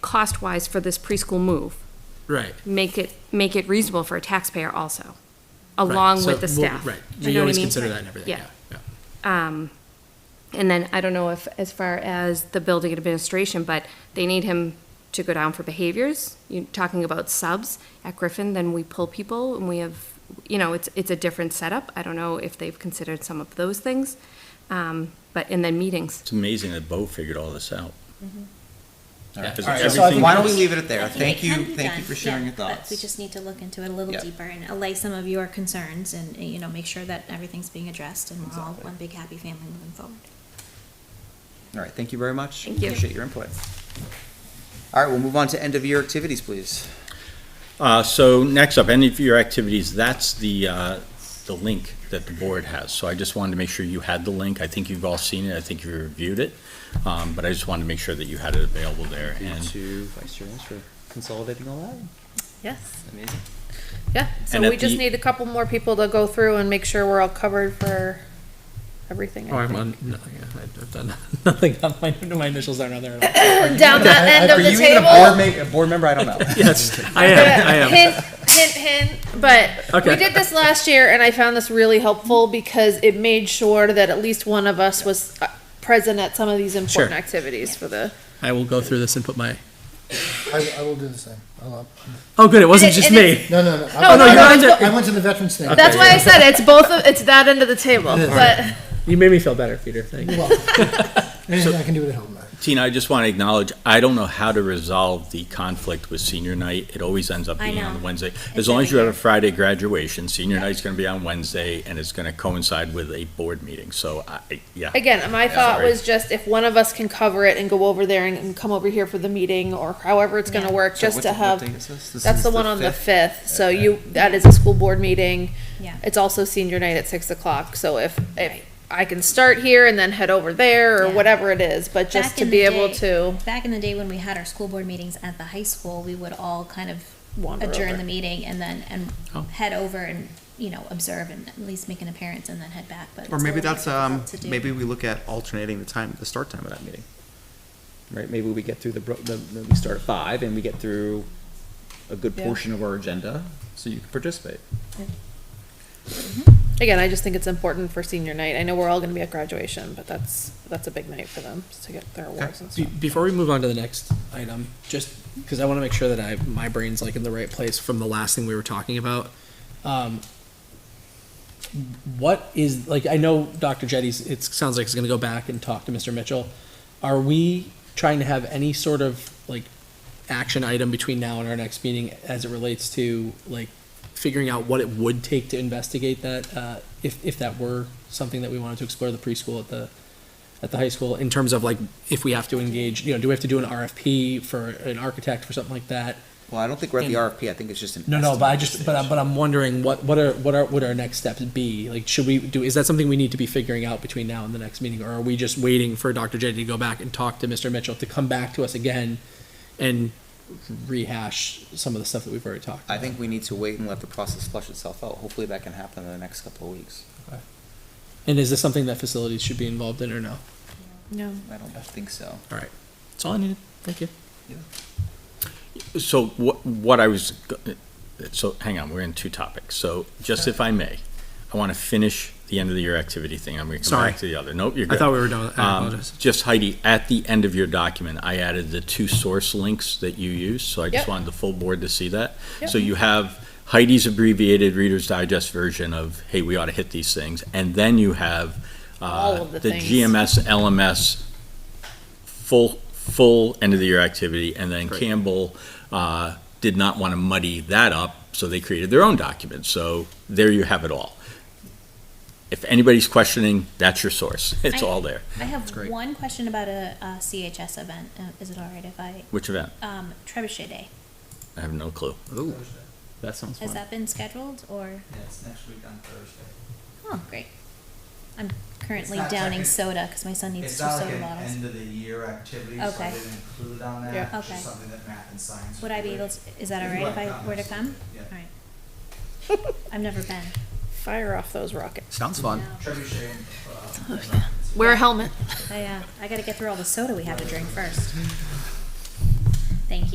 cost-wise for this preschool move, Right. make it, make it reasonable for a taxpayer also, right. along So with the we'll- staff. Right, You know we what I always mean? Um, consider that and everything, yeah, yeah. And then, I don't know if, as far as the building administration, but they need him to go down for behaviors. You're talking about subs at Griffin, then we pull people and we have, you know, it's, it's a different setup. I don't know if they've considered some of those things. Um, but, and then meetings. It's amazing that Bo figured all this out. All right. Because All right, so everything- why don't we leave it at I there? think Thank it you, can be thank you done, for sharing yeah, your but We thoughts. just need to look into it a little Yeah. deeper and allay some of your concerns and, you know, make sure that everything's being addressed and we're all Exactly. one big happy family moving forward. All right, thank you very much. Thank you. Appreciate your input. All right, we'll move on to end of year activities, please. Uh, so next up, any of your activities, that's the, uh, the link that the board has. So I just wanted to make sure you had the link. I think you've all seen it. I think you reviewed it. Um, but I just wanted to make sure that you had it available there. And, to Vice Chair Lynch for consolidating all that. Yes, Amazing. yeah, so And at we the- just need a couple more people to go through and make sure we're all covered for everything. Oh, I I'm think. on, nothing, I've done nothing, on my, my initials aren't on there at all. Down that end Are of the you even a board table. ma- a board member? I don't know. Yes, I am, I am. Hint, hint, hint, but we Okay. did this last year and I found this really helpful because it made sure that at least one of us was uh, present at some of these important Sure. activities for the. I will go through this and put my, I, I will do the same. I'll, uh, oh, good, it wasn't it- just and me. no, no, no. No, I, no, you're no, on it's to- bo- I went to the veterans thing. That's why I said it's both, of it's that end of the table, but. You made me feel better, Peter, thank you. Anything I can do it at home. man. Tina, I just want to acknowledge, I don't know how to resolve the conflict with senior night. It always ends up I being on know. Wednesday. It's As long as you every have a Friday graduation, senior night's going to be on Wednesday and it's going to coincide with a board meeting. So I, yeah. Again, my thought Sorry. was just if one of us can cover it and go over there and, and come over here for the meeting or however it's gonna Yeah. work, So just what- to what have, date is this? This that's is the one on the fifth, so Okay. you, that is a school board meeting. Yeah. It's also senior night at six o'clock, so if, if I can start here and then head over there or Yeah. whatever it is, but just Back to in be the able day- to Back in the day when we had our school board meetings at the high school, we would all kind of wander adjourn the over. meeting and then, and Oh. head over and, you know, observe and at least make an appearance and then head back, but. Or it's a maybe little that's, more um, difficult to do. maybe we look at alternating the time, the start time of that meeting. Right, maybe we get through the, bro- the, the- we start at five and we get through a good Yeah. portion of our agenda, so you can participate. Again, I just think it's important for senior night. I know we're all gonna be at graduation, but that's, that's a big night for them to get their awards and Be- stuff. Before we move on to the next item, just because I want to make sure that I, my brain's like in the right place from the last thing we were talking about. Um, what is, like, I know Dr. Jetty's, it sounds like he's going to go back and talk to Mr. Mitchell. Are we trying to have any sort of, like, action item between now and our next meeting as it relates to, like, figuring out what it would take to investigate that, uh, if, if that were something that we wanted to explore the preschool at the, at the high school in terms of like if we have to engage, you know, do we have to do an RFP for an architect for something like that? Well, I don't think we're at the And- RFP, I think it's just an. No, no, but I estimate just, but I, stage. but I'm wondering what, what are, what are, would our next steps be? Like, should we do, is that something we need to be figuring out between now and the next meeting? Or are we just waiting for Dr. Jetty to go back and talk to Mr. Mitchell to come back to us again and rehash some of the stuff that we've already talked I about? think we need to wait and let the process flush itself out. Hopefully that can happen in the next couple of weeks. And is this something that facilities should be involved in or no? No. I don't think so. All right. That's all I needed. Thank you. So what, what I was, go- so hang on, we're in two topics. So just if I may, I want to finish the end of the year activity thing. I'm going to come Sorry. back to the other. Nope, you're I good. thought we were done. I Um, apologize. Just Heidi, at the end of your document, I added the two source links that you use, so I just Yep. wanted the full board to see that. Yep. So you have Heidi's abbreviated Reader's Digest version of, hey, we ought to hit these things, and then you have uh, All of the things. GMS, LMS, full, full end of the year activity, and then Campbell uh, did not want to muddy that up, so they created their own document. So there you have it all. If anybody's questioning, that's your source. It's I- all there. I have great. one question about a, a CHS event. Uh, Is it all right if I, Which event? um, Trebuchet Day, I have no clue. Ooh, that sounds has that been scheduled or? Yeah, it's next week on Thursday. Oh, great. I'm currently not downing technic- soda because my son needs It's two not like soda an bottles. end of the year activity, so I Okay. didn't include it on that. Yeah. It's just Okay. something that math and science. Would I be do. able to, is that all If you right if want I were to come? comments, yeah. All right. I've never been. Fire off those rockets. Sounds fun. No. Trebuchet, uh, Wear a helmet. I, uh, I gotta get through all the soda we have to drink first.